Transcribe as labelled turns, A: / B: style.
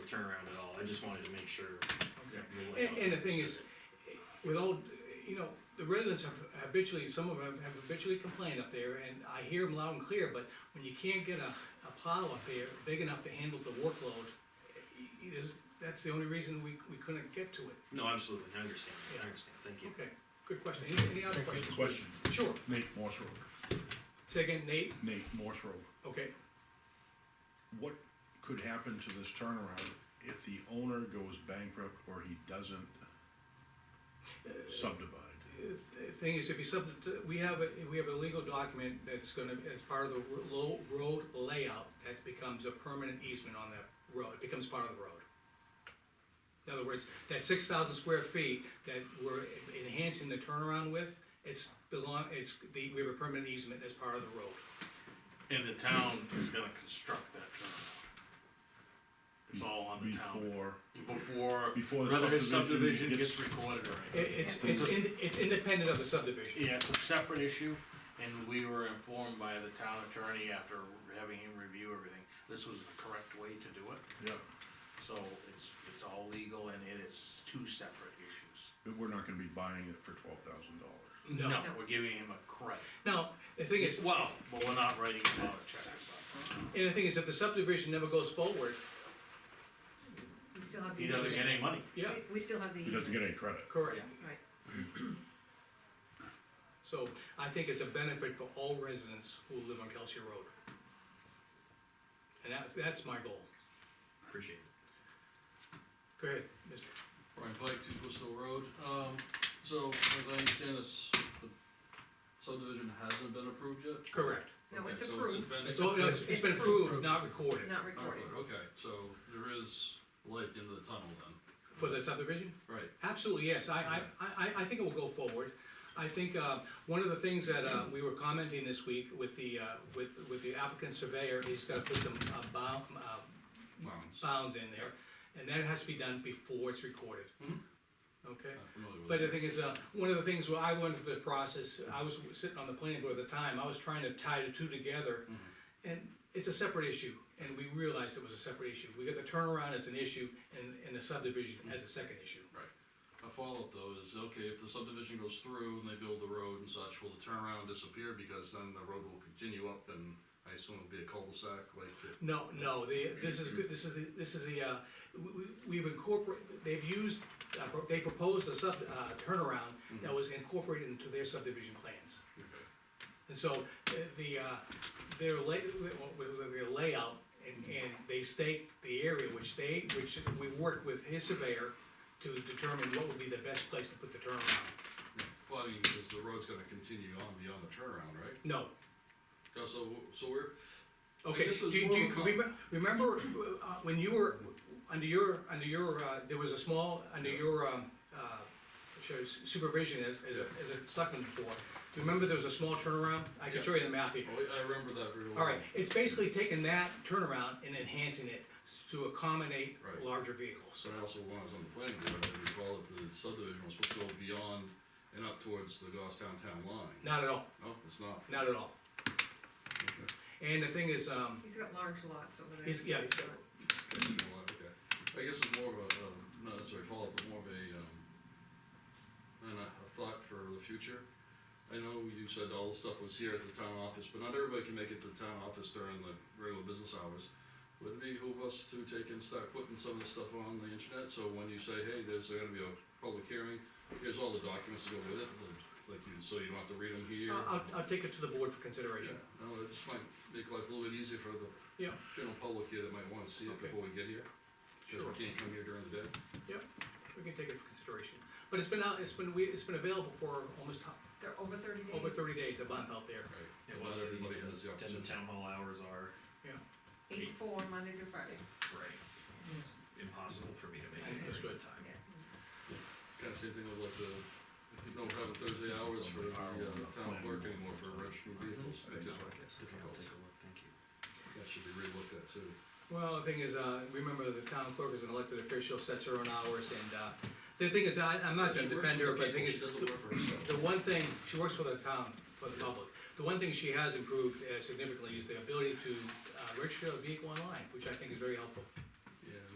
A: turnaround at all, I just wanted to make sure. that the
B: And,
A: layout
B: and the thing is,
A: understood
B: with all, you know, the residents have habitually, some of them have habitually complained up there, and I hear them loud and clear, but when you can't get a, a plow up there big enough to handle the workload, i- i- is, that's the only reason we, we couldn't get to it.
A: it. No, absolutely, I understand,
B: Yeah.
A: I understand, thank you.
B: Okay, good question. Any, any other questions?
C: Question,
B: Sure.
C: Nate Morse Road,
B: Say again, Nate?
C: Nate Morse Road,
B: Okay,
C: what could happen to this turnaround if the owner goes bankrupt or he doesn't
D: Uh,
C: subdivide?
B: the thing is, if you sub, we have, a we have a legal document that's gonna, as part of the ro- low road layout, that becomes a permanent easement on that road, it becomes part of the road. In other words, that six thousand square feet that we're enhancing the turnaround with, it's belong, it's, the, we have a permanent easement as part of the road.
D: And the town is gonna construct that turnaround. It's all on the town.
C: Before,
D: Before,
C: Before the
D: whether his
C: subdivision
D: subdivision
C: gets-
D: gets recorded or
B: It,
D: anything.
B: it's, it's, in- it's independent of the subdivision.
D: Yeah, it's a separate issue, and we were informed by the town attorney after having him review everything, this was the correct way to do it.
C: yeah,
D: So it's, it's all legal and it is two separate issues.
C: but we're not gonna be buying it for twelve thousand dollars.
B: No.
D: No, we're giving him a credit.
B: Now, the thing is,
D: Well, but we're not writing him out a check or something.
B: and the thing is, if the subdivision never goes forward,
E: We still have the.
D: He doesn't get any money.
B: yeah,
E: We, we still have the.
C: He doesn't get any credit.
B: correct.
E: Right,
B: So I think it's a benefit for all residents who live on Kelsey Road. And that's, that's my goal.
A: Appreciate it.
B: Go ahead, mister.
F: Brian Pike, two Bristol Road, um, so as I understand this, the subdivision hasn't been approved yet?
B: Correct.
E: No, it's
F: Okay, so
E: approved.
F: been- Oh,
B: It's, all- no, it's it's been approved, not recorded,
E: not
F: Not
E: recorded.
F: approved, okay, so there is light at the end of the tunnel then,
B: for the subdivision?
F: right,
B: Absolutely, yes, I, I, I, I think it will go forward. I think, uh, one of the things that, uh, we were commenting this week with the, uh, with, with the applicant surveyor, he's gotta put some, uh, bound, uh,
F: bounds, not
B: bounds in there. And that has to be done before it's recorded. Okay?
F: familiar with
B: But the
F: it.
B: thing is, uh, one of the things where I went through the process, I was sitting on the planning board at the time, I was trying to tie the two together. And it's a separate issue, and we realized it was a separate issue. We got the turnaround as an issue and, and the subdivision as a second issue.
F: Right, a follow-up though is, okay, if the subdivision goes through and they build the road and such, will the turnaround disappear, because then the road will continue up and I assume it'll be a cul-de-sac, like, it-
B: No, no, the, this is, good- this is, the this is the, uh, we- we- we've incorporated, they've used, uh, pro- they proposed a sub, uh, turnaround that was incorporated into their subdivision plans.
F: okay.
B: And so, uh, the, uh, their lay, with- with their layout, and, and they staked the area, which they, which we worked with his surveyor to determine what would be the best place to put the turnaround.
F: Well, I mean, because the road's gonna continue on beyond the turnaround, right?
B: No,
F: Yeah, so, so we're,
B: okay,
F: this
B: do
F: is
B: you, do
F: more
B: you,
F: of a-
B: remem- remember, uh, when you were, under your, under your, uh, there was a small, under your, um, uh, shows supervision as, as a, as a selectman before, do you remember there was a small turnaround? I can show you the map here.
F: oh, I remember that very well.
B: All right, it's basically taking that turnaround and enhancing it to accommodate
F: Right.
B: larger vehicles.
F: So I also, when I was on the planning board, I recall that the subdivision was supposed to go beyond and up towards the Goffstown town line.
B: Not at all,
F: No, it's not.
B: not at all. And the thing is, um,
E: He's got large lots over there.
B: He's- yeah, he's got-
F: You know what, okay. I guess it's more of a, um, not necessarily follow-up, but more of a, um, and a, a thought for the future. I know you said all the stuff was here at the town office, but not everybody can make it to the town office during the regular business hours. Would it behoove us to take and start putting some of the stuff on the internet, so when you say, hey, there's gonna be a public hearing, here's all the documents that go with it, like you, so you don't have to read them here?
B: I'll, I'll- I'll take it to the board for
F: Yeah,
B: consideration.
F: no, it just might make life a little bit easier for the
B: Yeah,
F: general public here that might wanna see it
B: Okay.
F: before we get here. Cause
B: Sure.
F: we can't come here during the day.
B: yeah, we can take it for consideration. But it's been out, it's been, we, it's been available for almost ho-
E: They're over thirty days.
B: over thirty days, a month out there,
F: Right.
A: It
F: Not
A: was, the-
F: everybody has the
A: then the
F: opportunity.
A: town hall hours are,
B: yeah,
E: Eight to four, Monday through Friday.
A: right, it's impossible for me to make it
B: That's
A: during
B: good.
A: the time.
F: Kinda same thing with like the, you don't have a Thursday hours for the uh, town clerk anymore for registered vehicles.
A: Okay,
F: It's just
A: I'll
F: difficult.
A: take a look, thank you.
F: That should be relooked at too.
B: Well, the thing is, uh, remember the town clerk is an elected official, sets her own hours and, uh, the thing is, I, I'm not gonna
F: She works
B: defend
F: for
B: her,
F: the
B: but the thing
F: people,
B: is.
F: She doesn't work for herself.
B: The one thing, she works for the town, for the public, the one thing she has improved uh, significantly is the ability to uh, register a vehicle online, which I think is very helpful.